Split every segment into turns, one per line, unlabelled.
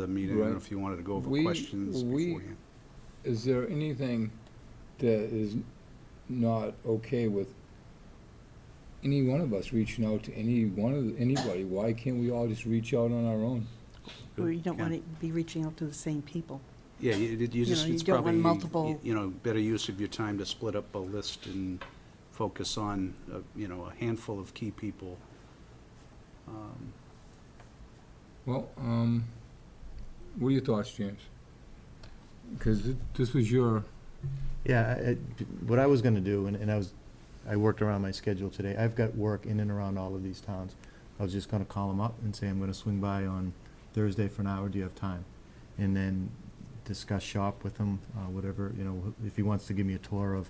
the meeting, I don't know
Right.
if you wanted to go over
We-
questions
we-
beforehand.
Is there anything that is not okay with any one of us reaching out to any one of, anybody? Why can't we all just reach out on our own?
Or you don't
Yeah.
want to be reaching out to the same people.
Yeah, you you
You
just,
know, you
it's
don't
probably,
want multiple-
you know, better use of your time to split up a list and focus on, uh, you know, a handful of key people. Um,
Well, um, what are your thoughts, James? Because this was your,
Yeah, I- I- what I was gonna do, and, and I was, I worked around my schedule today, I've got work in and around all of these towns. I was just gonna call them up and say, I'm gonna swing by on Thursday for an hour, do you have time? And then discuss shop with him, uh, whatever, you know, if he wants to give me a tour of,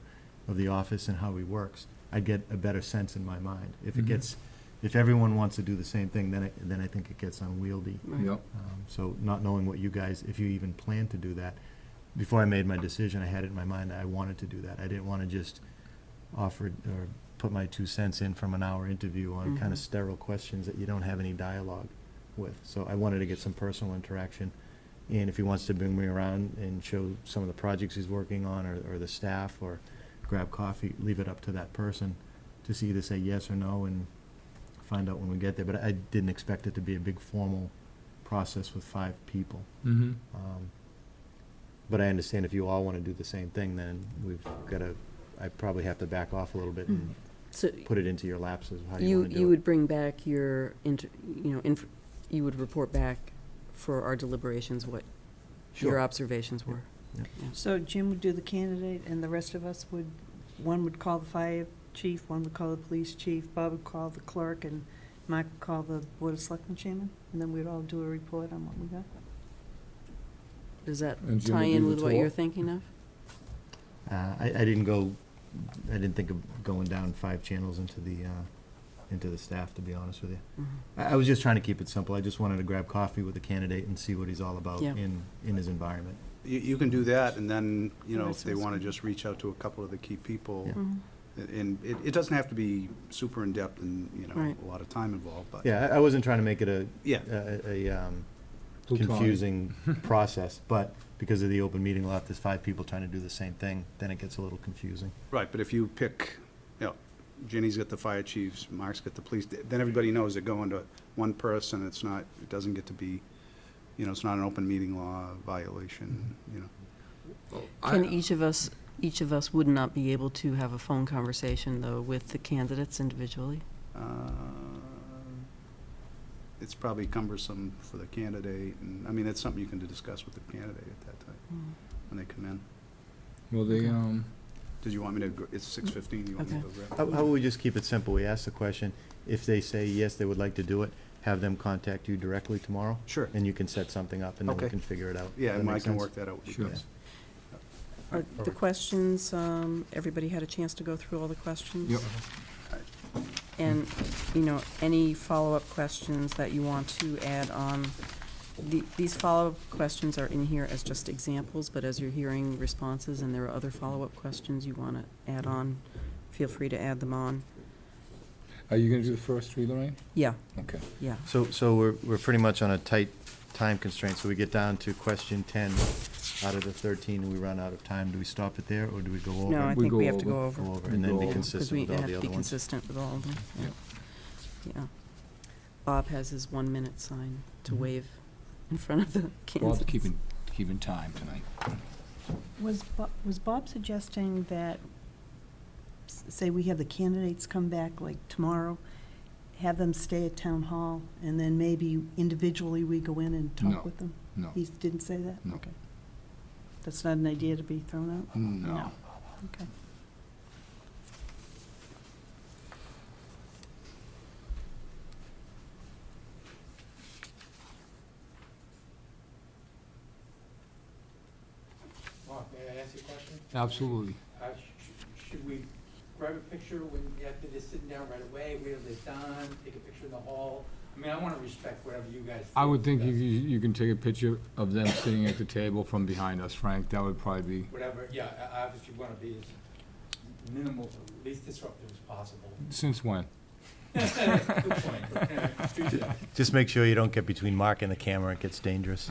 of the office and how he works, I'd get a better sense in my mind. If it
Mhm.
gets, if everyone wants to do the same thing, then, it- then I think it gets unwieldy.
yep,
Um, So not knowing what you guys, if you even plan to do that, before I made my decision, I had it in my mind that I wanted to do that. I didn't want to just offer or put my two cents in from an hour interview on kind
Mhm.
of sterile questions that you don't have any dialogue with. So I wanted to get some personal interaction. And if he wants to bring me around and show some of the projects he's working on or, or the staff or grab coffee, leave it up to that person to see either say yes or no and find out when we get there. But I didn't expect it to be a big formal process with five people.
mm-hmm.
Um, But I understand if you all want to do the same thing, then we've got to, I probably have to back off a little bit and
Mm. So
put it into your laps of how you
you,
want to
you
do it.
would bring back your, inter- you know, inf- you would report back for our deliberations what your
Sure.
observations were?
So Jim would do the candidate, and the rest of us would, one would call the fire chief, one would call the police chief, Bob would call the clerk, and Mike would call the board of selectmen chairman, and then we'd all do a report on what we got.
Does that
And Jim would
tie
do the
in with what
tour?
you're thinking of?
Uh, I, I didn't go, I didn't think of going down five channels into the, uh, into the staff, to be honest with you.
Mm-hmm.
I, I was just trying to keep it simple. I just wanted to grab coffee with the candidate and see what he's all about
Yeah.
in, in his environment.
You, you can do that, and then, you know, if
That's
they
what's
want to
good.
just reach out to a couple of the key people,
Yeah.
and it, it doesn't have to be super in-depth and, you know,
Right.
a lot of time involved, but,
Yeah, I, I wasn't trying to make it a,
yeah,
a, a, um, confusing process, but because of the open meeting law, if there's five people trying to do the same thing, then it gets a little confusing.
right, but if you pick, you know, Ginny's got the fire chiefs, Mark's got the police, then everybody knows they're going to one person, it's not, it doesn't get to be, you know, it's not an open meeting law violation, you know.
Can e- each of us, each of us would not be able to have a phone conversation, though, with the candidates individually?
Uh, It's probably cumbersome for the candidate, and, I mean, it's something you can discuss with the candidate at that time, when they come in.
Well, they, um,
Did you want me to, gr- it's six fifteen, you want me to go grab?
How, how would we just keep it simple? We ask the question, if they say yes, they would like to do it, have them contact you directly tomorrow,
Sure,
and you can set something up, and then we
Okay.
can figure it out.
yeah,
Does that
and I
make
can
sense?
work that out with you
Sure.
guys.
Are the questions, um, everybody had a chance to go through all the questions?
Yep. Mm-hmm.
And, you know, any follow-up questions that you want to add on? The- These follow-up questions are in here as just examples, but as you're hearing responses and there are other follow-up questions you want to add on, feel free to add them on.
are you gonna do the first three, Lorraine?
Yeah,
Okay.
yeah.
So, so we're, we're pretty much on a tight time constraint, so we get down to question ten out of the thirteen, and we run out of time. Do we stop it there, or do we go over?
No, I
We
think
go
we have to
over.
go over.
Go over,
We
and
go
then be
over. 'Cause
Because
consistent
we
with all
have
the
to
other
be
ones.
consistent with all of them,
Yep.
yeah. Yeah. Bob has his one-minute sign to
Mhm.
wave in front of the
Bob's
candidates.
keeping, keeping time tonight.
Was Bob, was Bob suggesting that, s- say, we have the candidates come back like tomorrow, have them stay at town hall, and then maybe individually we go in and
No.
talk with them?
No,
He didn't say that?
No.
Okay. That's not an idea to be thrown out?
no.
Okay.
Mark, may I ask you a question?
Absolutely.
Uh, sh- Should we grab a picture when, after this sitting down right away, wait till they're done, take a picture in the hall? I mean, I want to respect whatever you guys.
I would think you,
is best.
you you can take a picture of them sitting at the table from behind us, Frank. That would probably be,
Whatever, yeah, I- I obviously want to be as minimal, least disruptive as possible.
since when?
Good point. Appreciate it.
Just make sure you don't get between Mark and the camera, it gets dangerous.